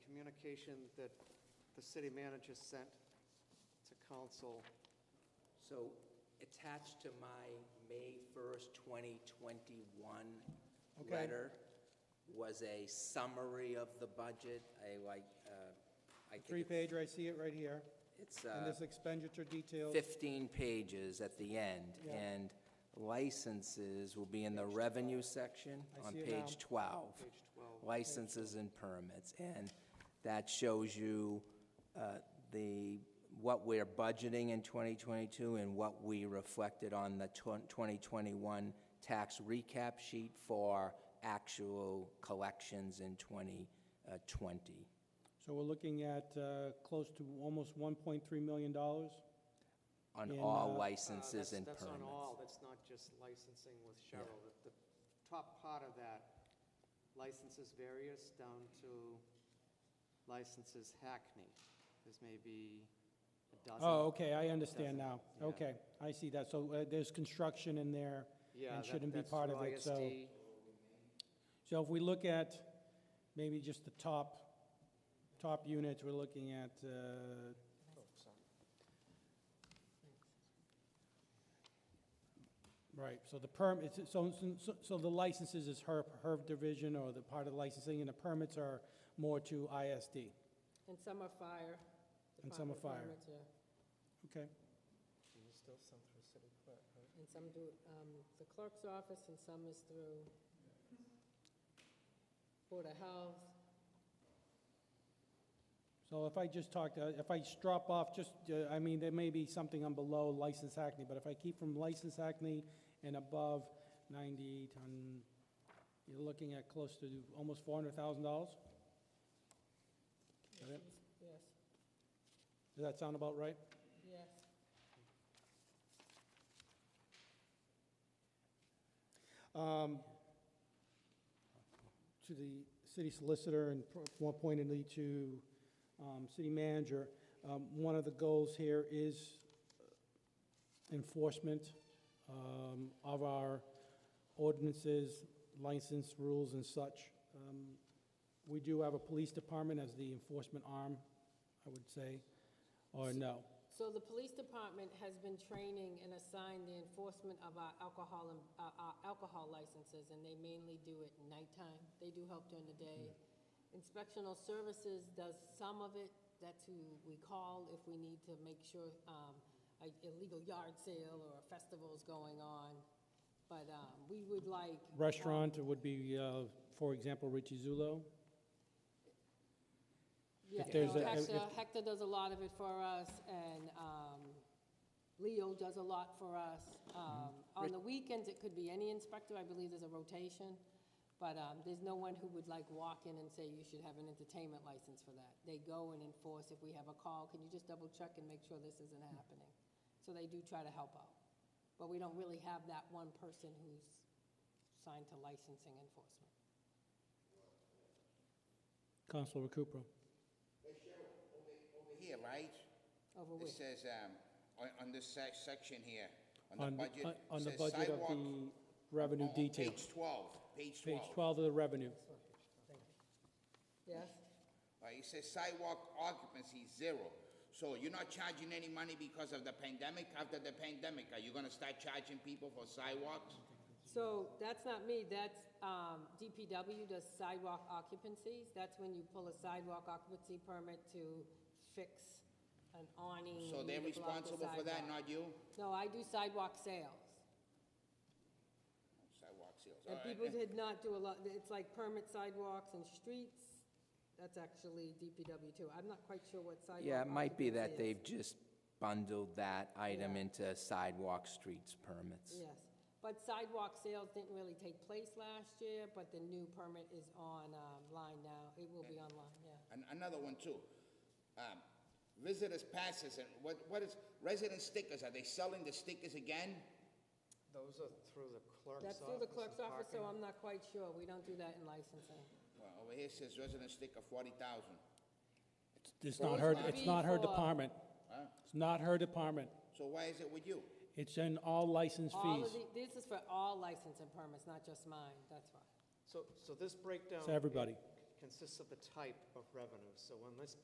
application that the city manager sent to council. So attached to my May 1st, 2021 Okay. letter was a summary of the budget, a like, uh, I think it- Three-page, I see it right here, it's and uh, this expenditure details. 15 pages at the end, Yeah. and licenses will be in the revenue section I on see it now. page 12. Page 12. Licenses and permits, and that shows you uh, the, what we're budgeting in 2022 and what we reflected on the twen- 2021 tax recap sheet for actual collections in uh, 2020. So we're looking at uh, close to almost $1.3 million. On In, all uh, Uh, licenses that's- and permits. That's on all, that's not just licensing with Cheryl. The the top part of that, licenses various down to licenses Hackney. There's maybe a dozen. Oh, okay, I understand now. Doesn't, yeah. Okay, I see that. So uh, there's construction in there Yeah, and that- shouldn't be that's part through of it, so. ISD. So if we look at maybe just the top, top units, we're looking at uh, Right, so the perm, it's- so, so so the licenses is HERP, HERB division, or the part of licensing, and the permits are more to ISD. And some are fire. And some are department fire. permits, yeah. Okay, And some do, um, the clerk's office, and some is through Board of Health. so if I just talk, to- if I just drop off, just, uh, I mean, there may be something on below license acne, but if I keep from license acne and above 90 ton, you're looking at close to almost $400,000? Got it? Yes, Does that sound about right? yes. Um, To the city solicitor and pro- more pointedly to um, city manager, um, one of the goals here is enforcement um, of our ordinances, license rules and such. Um, We do have a police department as the enforcement arm, I would say, or no? So the police department has been training and assigned the enforcement of our alcohol and, uh, our alcohol licenses, and they mainly do it nighttime. They do help during the day. Inspectional services does some of it. That's who we call if we need to make sure, um, a illegal yard sale or a festival's going on. But, um, we would like. Restaurant would be, uh, for example, Richie Zulo. Yeah, If there's no, a- Hector, if- Hector does a lot of it for us, and um, Leo does a lot for us. Mm-hmm. Um, On the weekends, it could be any inspector, I believe there's a rotation, but um, there's no one who would like walk in and say, you should have an entertainment license for that. They go and enforce, if we have a call, can you just double check and make sure this isn't Mm-hmm. happening? So they do try to help out, but we don't really have that one person who's signed to licensing enforcement. Councilor Recupero. Over here, right? Over It with. says, um, on, on this sec- section here, on the on, budget. on- it on the says budget of sidewalk- the on- revenue on detail. Page twelve, page Page twelve. 12 of the revenue. Yes? Right, it says sidewalk occupancy zero. So you're not charging any money because of the pandemic? After the pandemic, are you gonna start charging people for sidewalks? Mm-hmm. So that's not me, that's, um, DPW does sidewalk occupancies. That's when you pull a sidewalk occupancy permit to fix an awning. So they're to block the responsible for that, sidewalk. not you? No, I do sidewalk sales. Sidewalk sales, all And right. people did not do a lot, it's like permit sidewalks and streets. That's actually DPW too. I'm not quite sure what sidewalk. Yeah, it might be that occupancy is. they've just bundled that item Yeah. into sidewalk streets permits. Yes, but sidewalk sales didn't really take place last year, but the new permit is on, um, line now. It will be online, yeah. An- Another one too. Um, Visitors passes and what, what is, resident stickers, are they selling the stickers again? Those are through the clerk's office. That's through the clerk's and office, so parking. I'm not quite sure. We don't do that in licensing. Well, over here says resident sticker forty thousand. It's Well, not it's her, not- it's not her Before- department. It's not her department. So why is it with you? It's in all license All of fees. the, this is for all license and permits, not just mine, that's why. So, so this breakdown. It's everybody. consists of the type of revenue. So when this